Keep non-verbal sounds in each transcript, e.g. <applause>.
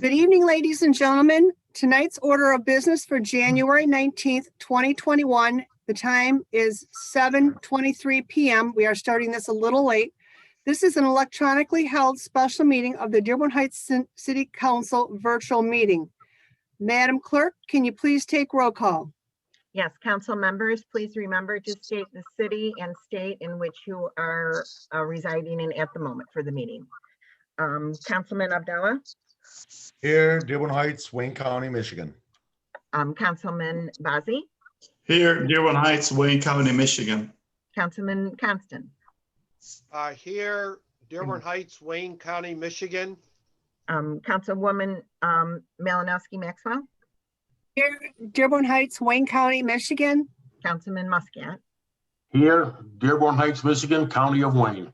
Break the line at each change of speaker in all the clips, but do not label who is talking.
Good evening, ladies and gentlemen. Tonight's order of business for January 19th, 2021. The time is 7:23 PM. We are starting this a little late. This is an electronically held special meeting of the Dearborn Heights Cin- City Council Virtual Meeting. Madam Clerk, can you please take roll call?
Yes, council members, please remember to state the city and state in which you are uh, residing in at the moment for the meeting. Um, Councilman Abdullah,
Here, Dearborn Heights, Wayne County, Michigan.
um, Councilman Bazey,
Here, Dearborn Heights, Wayne County, Michigan.
Councilman Constant,
Uh, here, Dearborn Heights, Wayne County, Michigan.
um, Councilwoman, um, Malinowski Maxwell,
Dear- Dearborn Heights, Wayne County, Michigan.
Councilman Muscat,
Here, Dearborn Heights, Michigan, County of Wayne.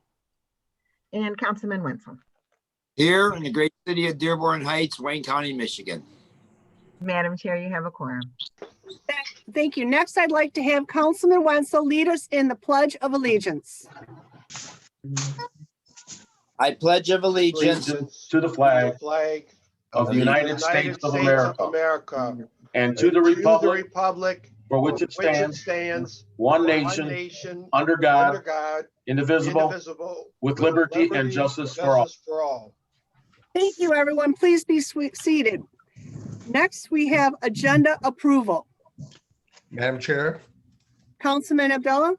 and Councilman Wenzel.
Here in the great city of Dearborn Heights, Wayne County, Michigan.
Madam Chair, you have a quorum.
Thank you. Next, I'd like to have Councilman Wenzel lead us in the Pledge of Allegiance.
I pledge of allegiance
To the flag
Flag.
of the United States of America
America.
and to the republic
republic
for which it
for which
stands,
stands,
one
one
nation,
nation,
under
under
God,
God,
indivisible,
indivisible.
with liberty and justice for all.
For all.
Thank you, everyone. Please be swe- seated. Next, we have agenda approval.
Madam Chair,
Councilman Abdullah,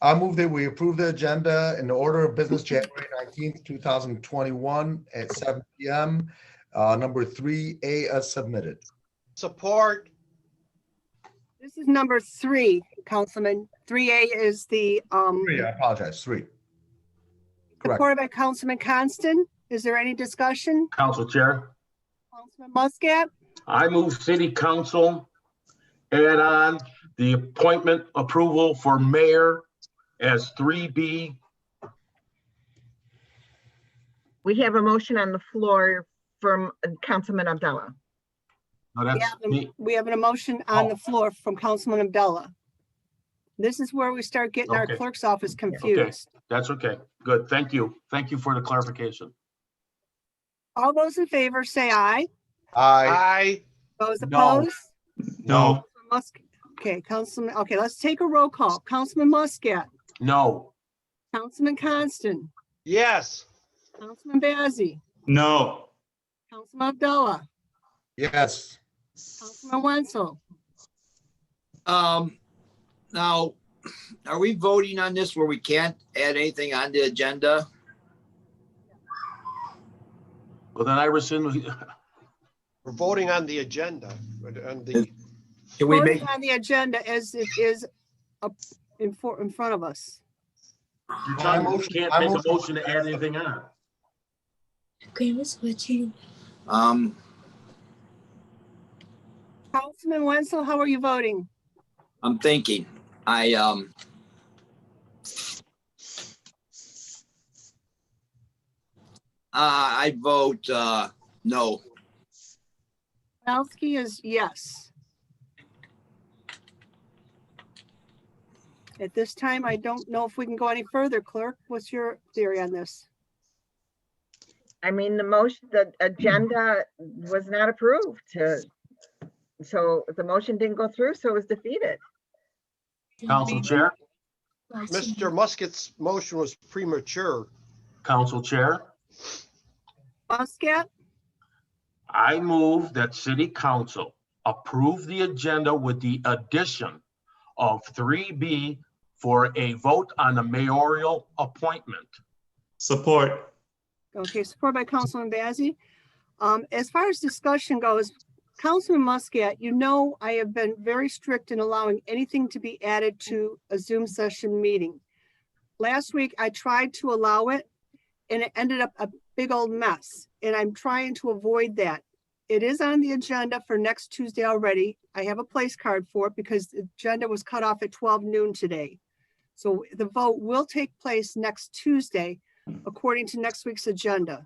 I move that we approve the agenda in the order of business January nineteenth, two thousand twenty-one at seven PM. Uh, number three A as submitted.
Support,
this is number three, Councilman. 3A is the um,
Three, I apologize, three. Correct.
supported by Councilman Constant. Is there any discussion?
Council Chair,
Councilman Muscat,
I move City Council add on the appointment approval for mayor as three B.
We have a motion on the floor from uh, Councilman Abdullah.
Now
we
that's
have
the-
a- we have an emotion on
Oh.
the floor from Councilman Abdullah. This is where we start getting our
Okay.
clerk's office confused.
That's okay. Good. Thank you. Thank you for the clarification.
All those in favor, say aye.
I,
aye,
Those
No.
opposed?
No,
Musk, okay, Councilman, okay, let's take a roll call. Councilman Muscat,
no,
Councilman Constant,
yes,
Councilman Bazey,
No,
Councilman Abdullah,
yes,
Councilman Wenzel.
Um, now, are we voting on this where we can't add anything on the agenda?
well, then I rescind, <laughs>
we're voting on the agenda, on the,
Can we make,
Voting on the agenda as it is up in for, in front of us.
Your
I
time,
motion-
you can't
I
make a
motion-
motion to add anything on.
Grandma's watching.
um,
Councilman Wenzel, how are you voting?
I'm thinking, I, um, uh, I vote, uh, no.
Malinowski is yes. At this time, I don't know if we can go any further. Clerk, what's your theory on this?
I mean, the motion, the agenda was not approved to, so the motion didn't go through, so it was defeated.
Council Chair,
Mr. Musket's motion was premature.
Council Chair,
Muscat,
I move that City Council approve the agenda with the addition of three B for a vote on the mayoral appointment.
support.
Okay, supported by Councilman Bazey. Um, as far as discussion goes, Councilman Muscat, you know, I have been very strict in allowing anything to be added to a Zoom session meeting. Last week, I tried to allow it and it ended up a big old mess, and I'm trying to avoid that. It is on the agenda for next Tuesday already. I have a place card for it because the agenda was cut off at twelve noon today. So the vote will take place next Tuesday according to next week's agenda.